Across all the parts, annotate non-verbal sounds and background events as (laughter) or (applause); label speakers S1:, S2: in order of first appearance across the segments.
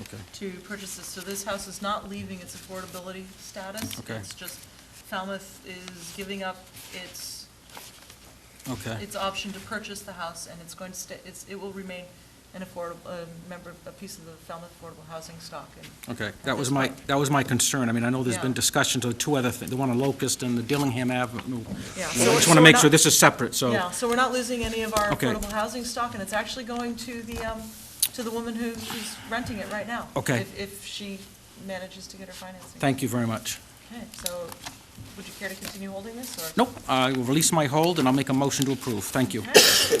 S1: Okay.
S2: to purchase this. So this house is not leaving its affordability status.
S1: Okay.
S2: It's just Falmouth is giving up its,
S1: Okay,
S2: its option to purchase the house, and it's going to stay, it's, it will remain an affordable, a member, a piece of the Falmouth affordable housing stock. And
S1: okay. That was my, that was my concern. I mean, I know there's been
S2: Yeah.
S1: discussions of two other things, the one on Locust and the Dillingham Avenue.
S2: Yeah, so-
S1: I just
S2: so
S1: want
S2: we're
S1: to make sure
S2: not-
S1: this is separate, so.
S2: Yeah, so we're not losing any of our
S1: Okay.
S2: affordable housing stock, and it's actually going to the, um, to the woman who- who's renting it right now.
S1: Okay.
S2: if- If she manages to get her financing.
S1: Thank you very much.
S2: Okay, so would you care to continue holding this, or?
S1: Nope, I will release my hold and I'll make a motion to approve. Thank you.
S2: Okay. Is there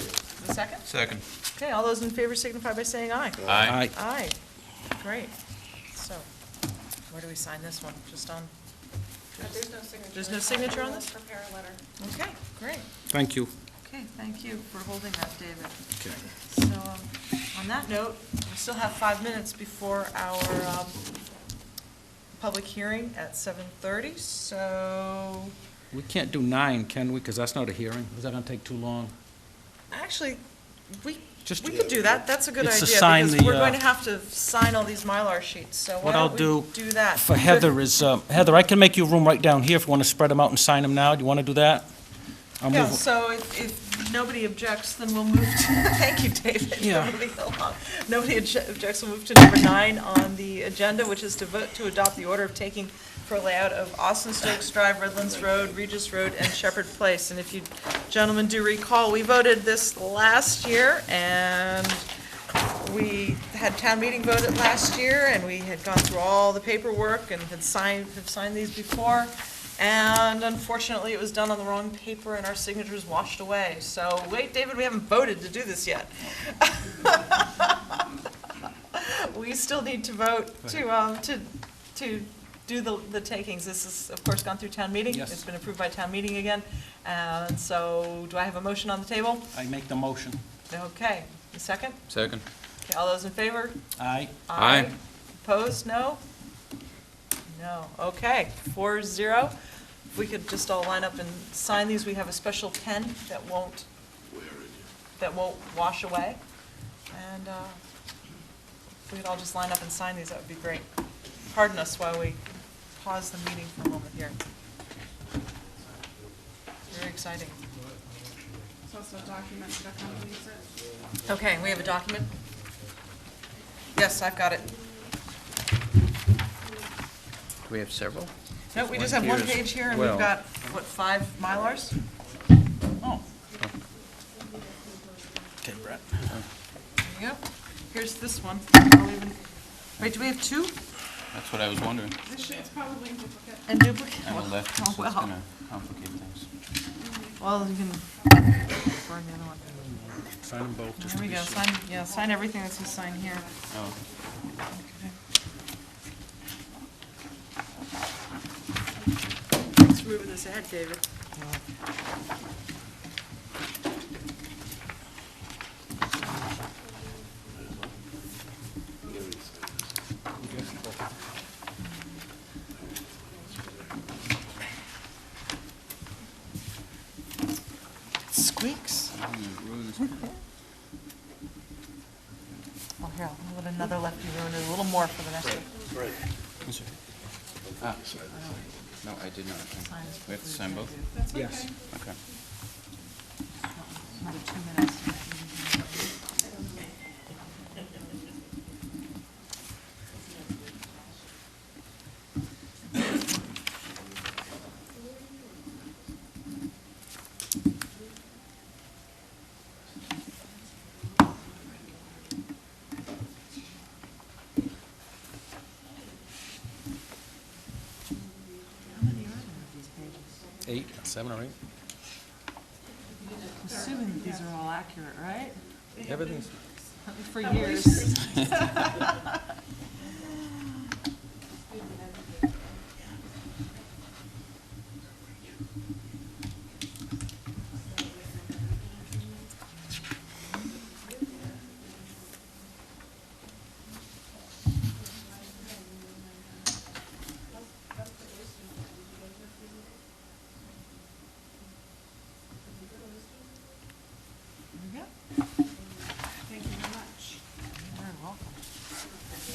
S2: a second?
S3: Second.
S2: Okay, all those in favor signify by saying aye.
S1: Aye.
S2: Aye, great. So, where do we sign this one? Just on,
S4: There's no signature.
S2: There's no signature on this?
S4: We'll Prepare a letter.
S2: okay, great.
S1: Thank you.
S2: Okay, thank you for holding that, David.
S1: Okay.
S2: So, um, on that note, we still have five minutes before our um, public hearing at 7:30, so,
S1: We can't do nine, can we? Because that's not a hearing. Is that going to take too long?
S2: actually, we,
S1: Just-
S2: we could do that, that's a good
S1: It's
S2: idea.
S1: to sign
S2: Because
S1: the,
S2: we're
S1: uh,
S2: going to have to sign all these Mylar sheets, so why
S1: What I'll
S2: don't we
S1: do
S2: do that?
S1: For Heather is, uh, Heather, I can make you room right down here if you want to spread them out and sign them now. Do you want to do that? I'll
S2: Yeah,
S1: move-
S2: so if, if nobody objects, then we'll move to, (laughs) thank you, David.
S1: Yeah.
S2: Nobody along- Nobody obje- objects, we'll move to number nine on the agenda, which is to vote to adopt the order of taking for layout of Austin Stokes Drive, Redlands Road, Regis Road, and Shepherd Place. And if you gentlemen do recall, we voted this last year, and we had town meeting vote it last year, and we had gone through all the paperwork and had signed, have signed these before. And unfortunately, it was done on the wrong paper and our signatures washed away. So, wait, David, we haven't voted to do this yet. (laughs) We still need to vote to, um, to, to do the, the takings. This has, of course, gone through town meeting.
S1: Yes.
S2: It's been approved by town meeting again. And so, do I have a motion on the table?
S1: I make the motion.
S2: Okay, a second?
S3: Second.
S2: Okay, all those in favor?
S1: Aye.
S3: Aye.
S2: Opposed, no? No, okay, four zero. If we could just all line up and sign these, we have a special pen that won't, that won't wash away. And uh, if we could all just line up and sign these, that would be great. Pardon us while we pause the meeting for a moment here. Very exciting.
S4: It's also a document that accompanies it.
S2: Okay, we have a document? Yes, I've got it.
S3: Do we have several?
S2: No, we just have one page here, and we've
S3: Well-
S2: got, what, five Mylars? Oh,
S1: Okay, Brett.
S2: there you go. Here's this one. I'll even- Wait, do we have two
S3: That's what I was wondering.
S4: This sheet's probably in duplicate.
S2: and duplicate?
S3: I'm a left, so
S2: Oh,
S3: it's
S2: well,
S3: gonna complicate things.
S2: well, you can burn the other one.
S1: Sign them both, just
S2: There we go, sign, yeah, sign everything that's gonna sign here.
S3: Oh,
S4: Let's move this ahead, David.
S2: Squeaks. Well, here, I'll let another lefty ruin it a little more for the next one.
S3: no, I did not.
S2: Sign is
S3: We have to sign both?
S4: That's okay.
S1: Yes.
S3: Okay.
S2: Another two minutes. How many are there of these pages?
S1: Eight, seven or eight?
S2: I'm Assuming that these are all accurate, right?
S1: Everything's,
S2: For years.